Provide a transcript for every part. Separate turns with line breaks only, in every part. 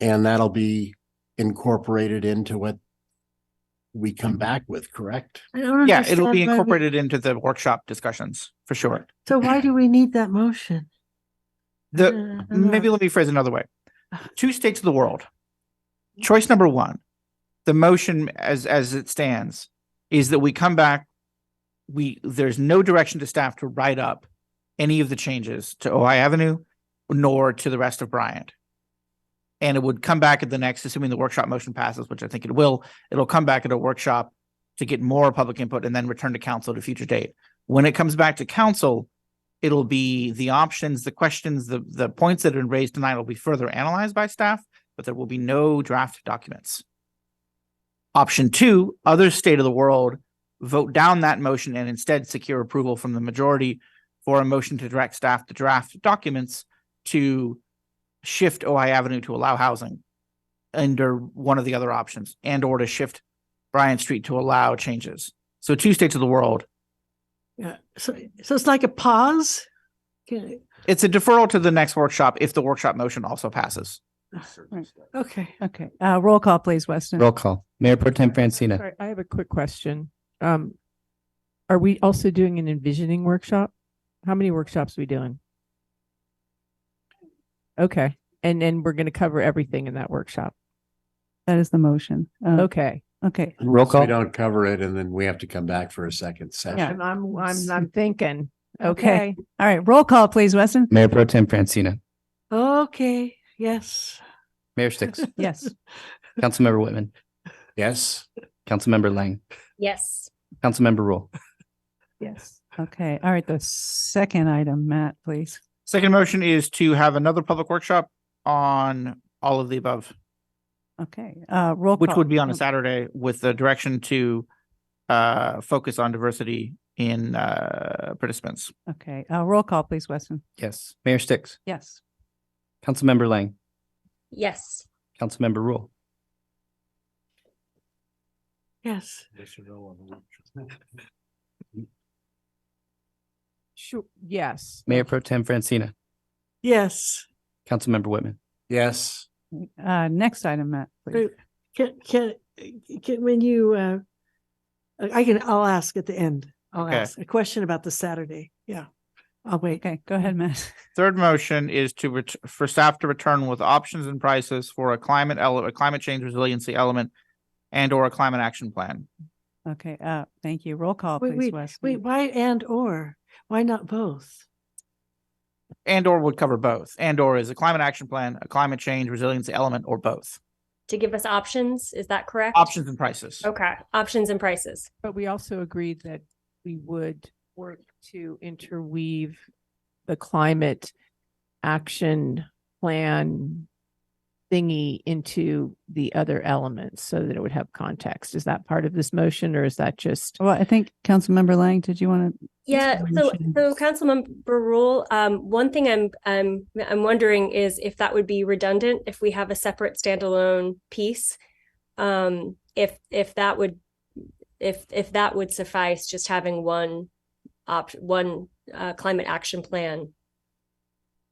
And that'll be incorporated into what we come back with, correct?
I don't
Yeah, it'll be
understand why we-
incorporated into the workshop discussions for sure.
So why do we need that motion?
The,
Uh, I don't
maybe
know.
let me phrase it another way. Two states of the world. Choice number one, the motion as, as it stands is that we come back. We, there's no direction to staff to write up any of the changes to Ojai Avenue nor to the rest of Bryant. And it would come back at the next, assuming the workshop motion passes, which I think it will, it'll come back at a workshop to get more public input and then return to council at a future date. When it comes back to council, it'll be the options, the questions, the, the points that have been raised tonight will be further analyzed by staff, but there will be no draft documents. Option two, other state of the world, vote down that motion and instead secure approval from the majority for a motion to direct staff to draft documents to shift Ojai Avenue to allow housing under one of the other options and or to shift Bryant Street to allow changes. So two states of the world.
Yeah, so, so it's like a pause? Okay,
It's a deferral to the next workshop if the workshop motion also passes.
okay.
Okay, uh, roll call, please, Weston.
Roll call. Mayor Pro Tem Francina.
Sorry, I have a quick question. Um, are we also doing an envisioning workshop? How many workshops are we doing? Okay, and then we're gonna cover everything in that workshop.
That is the motion. Uh,
Okay.
okay.
Roll
So We
call.
don't cover it and then we have to come back for a second session.
I'm, I'm, Oh, I'm, I'm thinking,
Okay.
okay.
All right. Roll call, please, Weston.
Mayor Pro Tem Francina.
Okay, yes.
Mayor Sticks.
Yes.
Councilmember Whitman.
Yes,
Councilmember Lang.
Yes,
Councilmember Rule.
Yes.
Mm-hmm.
Okay. All right. The second item, Matt, please.
Second motion is to have another public workshop on all of the above,
Okay. Uh, roll.
which
call.
would be on a
Oh,
Saturday with the direction to uh, focus on diversity in uh, participants.
Okay. Uh, roll call, please, Weston.
Yes. Mayor Sticks.
Yes.
Councilmember Lang.
yes,
Councilmember Rule.
Yes.
Sure, yes.
Mayor Pro Tem Francina.
Yes.
Councilmember Whitman.
yes,
Uh, next item, Matt, please.
Great. Can, can, can, when you, uh, I can, I'll ask at the end. I'll
Okay.
ask a question about the Saturday. Yeah. I'll wait.
Okay. Go ahead,
Mm-hmm.
Matt.
Third motion is to ret- for staff to return with options and prices for a climate ele- a climate change resiliency element and or a climate action plan.
Okay. Uh, thank you. Roll call,
Wait,
please, Weston.
Wait, why and or? Why not both?
And or would cover both. And or is a climate action plan, a climate change resiliency element, or both.
to give us options, is that correct?
Options and prices.
Okay, options and prices.
But we also agreed that we would work to interweave the climate action plan thingy into the other elements so that it would have context. Is that part of this motion or is that just?
Well, I think Councilmember Lang, did you want to?
Yeah, so
Information.
so Councilmember Rule, um, one thing I'm I'm I'm wondering is if that would be redundant if we have a separate standalone piece. Um, if if that would if if that would suffice, just having one opt one uh climate action plan.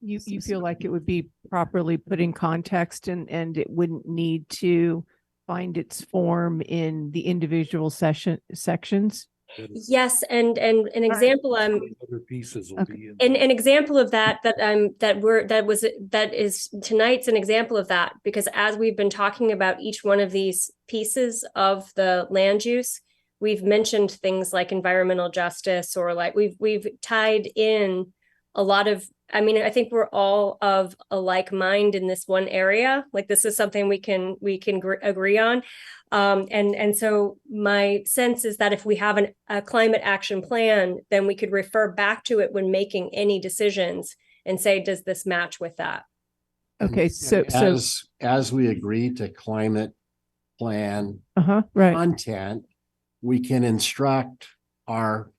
You, you
Yes.
feel like it would be properly put in context and, and it wouldn't need to find its form in the individual session, sections?
Yes, and and an example I'm
Other pieces will
Okay.
be. in
an
there.
an example of that that um that we're that was that is tonight's an example of that because as we've been talking about each one of these pieces of the land use we've mentioned things like environmental justice or like we've we've tied in a lot of i mean i think we're all of a like mind in this one area like this is something we can we can gr- agree on um, and and so my sense is that if we have an, a climate action plan, then we could refer back to it when making any decisions and say, does this match with that?
Okay, so, so,
as, as we agree to climate plan
uh-huh, right.
content, we can instruct our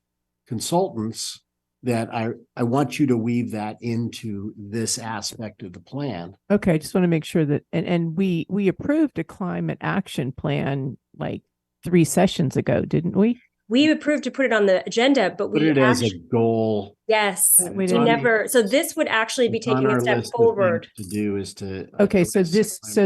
consultants that I, I want you to weave that into this aspect of the plan.
Okay, I just want to make sure that, and, and we, we approved a climate action plan like three sessions ago, didn't we?
We approved to put it on the agenda, but
Put
we
it as a
actu-
goal.
yes,
It's
we
on-
never. So this would actually be
it's on
taking
our
a step
list of things
forward.
To uh, do is to.
Okay, so
address
this- so
climate